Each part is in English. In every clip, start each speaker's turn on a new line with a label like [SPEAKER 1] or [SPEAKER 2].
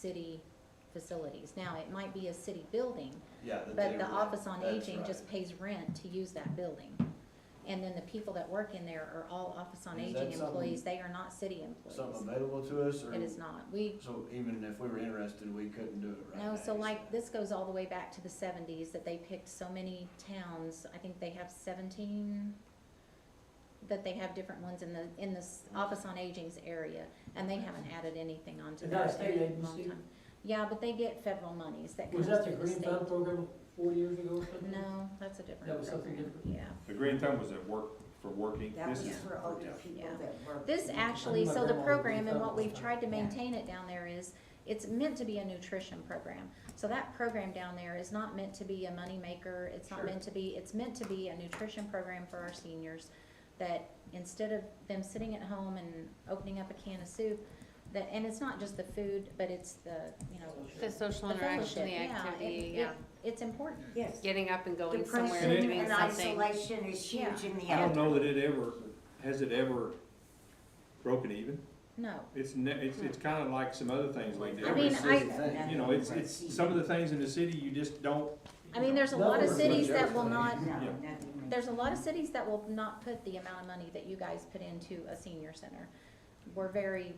[SPEAKER 1] city facilities. Now, it might be a city building,
[SPEAKER 2] Yeah, that they
[SPEAKER 1] but the
[SPEAKER 2] rent.
[SPEAKER 1] Office on
[SPEAKER 2] That's
[SPEAKER 1] Aging just
[SPEAKER 2] right.
[SPEAKER 1] pays rent to use that building. And then the people that work in there are all Office on
[SPEAKER 3] Is that
[SPEAKER 1] Aging employees,
[SPEAKER 3] something-
[SPEAKER 1] they are not city employees.
[SPEAKER 3] Something available to us, or?
[SPEAKER 1] It is not. We,
[SPEAKER 3] So even if we were interested, we couldn't do it right now?
[SPEAKER 1] no, so
[SPEAKER 3] you
[SPEAKER 1] like,
[SPEAKER 3] said.
[SPEAKER 1] this goes all the way back to the seventies, that they picked so many towns, I think they have seventeen, that they have different ones in the, in this Office on Aging's area, and they haven't added anything onto
[SPEAKER 4] Is that a
[SPEAKER 1] that
[SPEAKER 4] state
[SPEAKER 1] in a long
[SPEAKER 4] agency?
[SPEAKER 1] time. Yeah, but they get federal monies that comes
[SPEAKER 4] Was that the
[SPEAKER 1] through the
[SPEAKER 4] green
[SPEAKER 1] state.
[SPEAKER 4] thumb program forty years ago or something?
[SPEAKER 1] No, that's a different
[SPEAKER 4] That was something
[SPEAKER 1] program,
[SPEAKER 4] different?
[SPEAKER 1] yeah.
[SPEAKER 5] The green thumb was at work, for working,
[SPEAKER 6] That
[SPEAKER 5] this
[SPEAKER 6] was
[SPEAKER 5] is,
[SPEAKER 6] for older
[SPEAKER 2] yeah.
[SPEAKER 6] people
[SPEAKER 1] Yeah.
[SPEAKER 6] that work.
[SPEAKER 1] This
[SPEAKER 6] in-
[SPEAKER 1] actually, so the
[SPEAKER 4] Remember,
[SPEAKER 1] program and what
[SPEAKER 4] we
[SPEAKER 1] we've
[SPEAKER 4] thought-
[SPEAKER 1] tried to maintain it down there is, it's meant to be a nutrition program. So that program down there is not meant to be a moneymaker, it's not
[SPEAKER 4] Sure.
[SPEAKER 1] meant to be, it's meant to be a nutrition program for our seniors. That instead of them sitting at home and opening up a can of soup, that, and it's not just the food, but it's the, you know,
[SPEAKER 7] The social interaction, the
[SPEAKER 1] fellowship, yeah,
[SPEAKER 7] activity,
[SPEAKER 1] it-
[SPEAKER 7] yeah,
[SPEAKER 1] it's important.
[SPEAKER 6] Yes.
[SPEAKER 7] getting up and going somewhere
[SPEAKER 6] Depression
[SPEAKER 7] and doing
[SPEAKER 6] and
[SPEAKER 7] something.
[SPEAKER 6] isolation is huge
[SPEAKER 1] Yeah.
[SPEAKER 6] in the
[SPEAKER 5] I don't
[SPEAKER 6] elderly.
[SPEAKER 5] know that it ever, has it ever broken even?
[SPEAKER 1] No,
[SPEAKER 5] It's ne, it's, it's kinda like some other things like
[SPEAKER 1] I mean,
[SPEAKER 5] that.
[SPEAKER 1] I-
[SPEAKER 5] You know, it's, it's, some of the things in the city you just don't,
[SPEAKER 1] I mean, there's a lot of
[SPEAKER 3] Nothing was
[SPEAKER 1] cities that will
[SPEAKER 3] adjusted.
[SPEAKER 1] not,
[SPEAKER 6] No,
[SPEAKER 5] Yeah.
[SPEAKER 6] nothing.
[SPEAKER 1] There's a lot of cities that will not put the amount of money that you guys put into a senior center. We're very,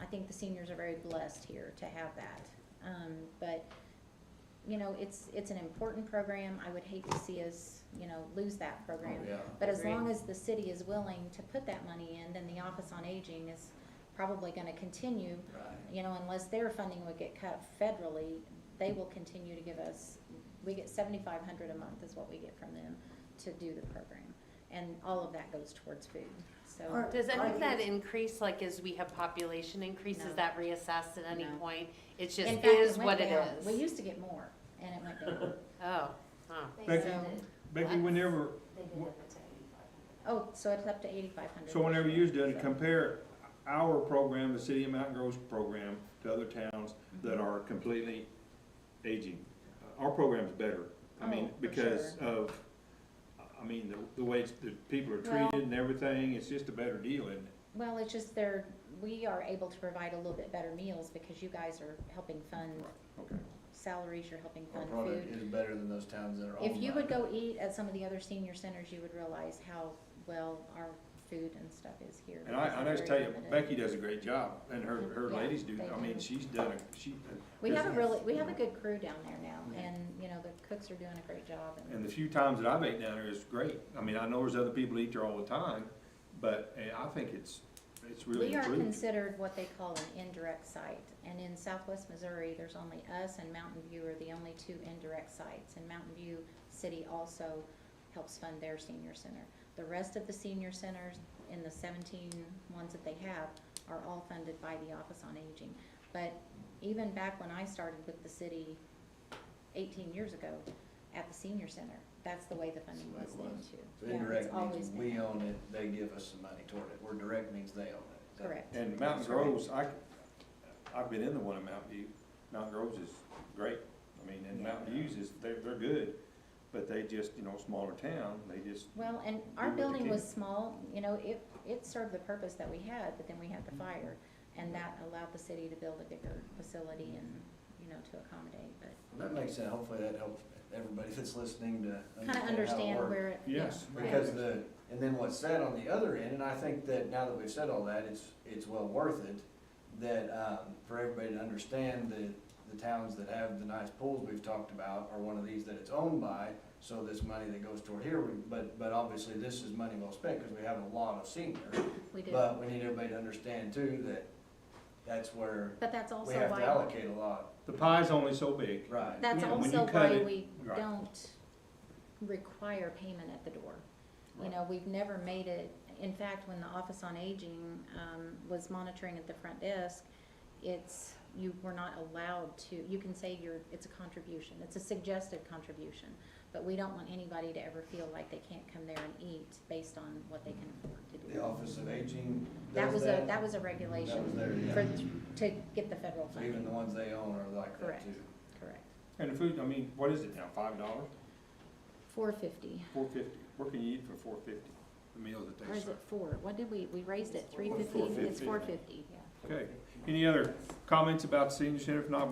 [SPEAKER 1] I think the seniors are very blessed here to have that. Um, but, you know, it's, it's an important program. I would hate to see us, you know, lose that program.
[SPEAKER 3] Oh, Yeah.
[SPEAKER 1] But as
[SPEAKER 7] Agreed.
[SPEAKER 1] long as the city is willing to put that money in, then the Office on Aging is probably gonna continue,
[SPEAKER 3] Right.
[SPEAKER 1] you know, unless their funding would get cut federally, they will continue to give us, we get seventy-five hundred a month is what we get from them to do the program. And all of that goes towards food, so,
[SPEAKER 6] Or-
[SPEAKER 7] Does any
[SPEAKER 6] Are
[SPEAKER 7] of that
[SPEAKER 6] these-
[SPEAKER 7] increase, like as we have population increase,
[SPEAKER 1] No.
[SPEAKER 7] is that reassessed at any
[SPEAKER 1] No.
[SPEAKER 7] point? It's just
[SPEAKER 1] in fact,
[SPEAKER 7] is
[SPEAKER 1] it
[SPEAKER 7] what
[SPEAKER 1] went
[SPEAKER 7] it
[SPEAKER 1] down. We
[SPEAKER 7] is.
[SPEAKER 1] used to get more, and it went down.
[SPEAKER 7] Oh, huh.
[SPEAKER 5] Becky,
[SPEAKER 1] So-
[SPEAKER 5] Becky, whenever,
[SPEAKER 1] Oh, so it's up to eighty-five hundred.
[SPEAKER 5] so whenever you was doing it, compare our program, the city of Mountain Grove's program, to other towns
[SPEAKER 1] Mm-hmm.
[SPEAKER 5] that are completely aging. Our program's better, I mean,
[SPEAKER 1] Oh, for
[SPEAKER 5] because
[SPEAKER 1] sure.
[SPEAKER 5] of, I mean, the, the way it's- the people are
[SPEAKER 1] Well-
[SPEAKER 5] treated and everything, it's just a better deal, isn't it?
[SPEAKER 1] Well, it's just there, we are able to provide a little bit better meals because you guys are helping fund
[SPEAKER 5] Okay.
[SPEAKER 1] salaries, you're helping
[SPEAKER 3] Our
[SPEAKER 1] fund food.
[SPEAKER 3] product is better than those towns that are
[SPEAKER 1] If
[SPEAKER 3] owned
[SPEAKER 1] you
[SPEAKER 3] by-
[SPEAKER 1] would go eat at some of the other senior centers, you would realize how well our food and stuff is here.
[SPEAKER 5] And I,
[SPEAKER 1] because
[SPEAKER 5] I
[SPEAKER 1] they're
[SPEAKER 5] just tell
[SPEAKER 1] very
[SPEAKER 5] you,
[SPEAKER 1] limited.
[SPEAKER 5] Becky does a great job, and her, her
[SPEAKER 1] Yeah,
[SPEAKER 5] ladies do,
[SPEAKER 1] they
[SPEAKER 5] I mean,
[SPEAKER 1] do.
[SPEAKER 5] she's done, a she,
[SPEAKER 1] We have a
[SPEAKER 5] business.
[SPEAKER 1] really, we have a good crew down there now,
[SPEAKER 5] Yeah.
[SPEAKER 1] and, you know, the cooks are doing a great job,
[SPEAKER 5] and the
[SPEAKER 1] and,
[SPEAKER 5] few times that I've ate down there is great. I mean, I know there's other people eat there all the time, but eh, I think it's, it's really
[SPEAKER 1] we are
[SPEAKER 5] improved.
[SPEAKER 1] considered what they call an indirect site, and in southwest Missouri, there's only us and Mountain View are the only two indirect sites, and Mountain View City also helps fund their senior center. The rest of the senior centers in the 17 ones that they have are all funded by the Office on Aging. But even back when I started with the city eighteen years ago at the senior center, that's the way the funding was
[SPEAKER 3] That's the way it
[SPEAKER 1] then
[SPEAKER 3] was. So
[SPEAKER 1] too. Yeah, it's
[SPEAKER 3] indirect
[SPEAKER 1] always
[SPEAKER 3] means
[SPEAKER 1] been
[SPEAKER 3] we
[SPEAKER 1] that.
[SPEAKER 3] own it, they give us some money toward it, where direct means they own it. Is that-
[SPEAKER 1] Correct.
[SPEAKER 5] And Mountain
[SPEAKER 3] That's right.
[SPEAKER 5] Grove's, I, I've been in the one in Mountain View, Mountain Grove's is great. I mean, and
[SPEAKER 3] Yeah.
[SPEAKER 5] Mountain View's is, they're, they're good, but they just, you know, smaller town, they just,
[SPEAKER 1] Well, and
[SPEAKER 5] Do
[SPEAKER 1] our
[SPEAKER 5] what they
[SPEAKER 1] building was
[SPEAKER 5] can.
[SPEAKER 1] small, you know, it, it served the purpose that we had, but then we had the fire. And that allowed the city to build a bigger facility and, you know, to accommodate, but
[SPEAKER 3] That makes sense, hopefully that helps everybody that's listening to
[SPEAKER 1] kind of
[SPEAKER 3] understand
[SPEAKER 1] understand
[SPEAKER 3] how it works.
[SPEAKER 1] where it, yeah,
[SPEAKER 5] yes.
[SPEAKER 1] right.
[SPEAKER 3] Because the, and then what's said on the other end, and I think that now that we've said all that, it's, it's well worth it, that, um, for everybody to understand that the towns that have the nice pools we've talked about are one of these that it's owned by, so this money that goes toward here, we- but, but obviously this is money well spent, because we have a lot of seniors.
[SPEAKER 1] we did.
[SPEAKER 3] But we need everybody to understand too, that that's where
[SPEAKER 1] But that's
[SPEAKER 3] we
[SPEAKER 1] also
[SPEAKER 3] have to
[SPEAKER 1] why,
[SPEAKER 3] allocate a lot,
[SPEAKER 5] The pie's only so big.
[SPEAKER 3] right?
[SPEAKER 1] that's
[SPEAKER 5] Yeah, when
[SPEAKER 1] also
[SPEAKER 5] you cut
[SPEAKER 1] why
[SPEAKER 5] it-
[SPEAKER 1] we
[SPEAKER 5] right.
[SPEAKER 1] don't require payment at the door. You
[SPEAKER 5] Right.
[SPEAKER 1] know, we've never made it, in fact, when the Office on Aging, um, was monitoring at the front desk, it's, you were not allowed to, you can say you're, it's a contribution, it's a suggested contribution. But we don't want anybody to ever feel like they can't come there and eat based on what they can afford to do.
[SPEAKER 3] The Office of Aging
[SPEAKER 1] That
[SPEAKER 3] does
[SPEAKER 1] was a,
[SPEAKER 3] that.
[SPEAKER 1] that was a
[SPEAKER 3] That was
[SPEAKER 1] regulation
[SPEAKER 3] their,
[SPEAKER 1] for,
[SPEAKER 3] yeah.
[SPEAKER 1] to get the federal
[SPEAKER 3] So even the
[SPEAKER 1] funding,
[SPEAKER 3] ones they own are like that
[SPEAKER 1] Correct.
[SPEAKER 3] too.
[SPEAKER 1] correct.
[SPEAKER 5] And the food, I mean, what is it now, five dollars,
[SPEAKER 1] Four fifty,
[SPEAKER 5] four fifty? What can you eat for four fifty, the meals that
[SPEAKER 1] or
[SPEAKER 5] they
[SPEAKER 1] is
[SPEAKER 5] serve?
[SPEAKER 1] it four? What did we, we raised it, three fifty? It's
[SPEAKER 5] $4.50.
[SPEAKER 1] four fifty, yeah.
[SPEAKER 5] Okay, any other comments about the senior center? If not,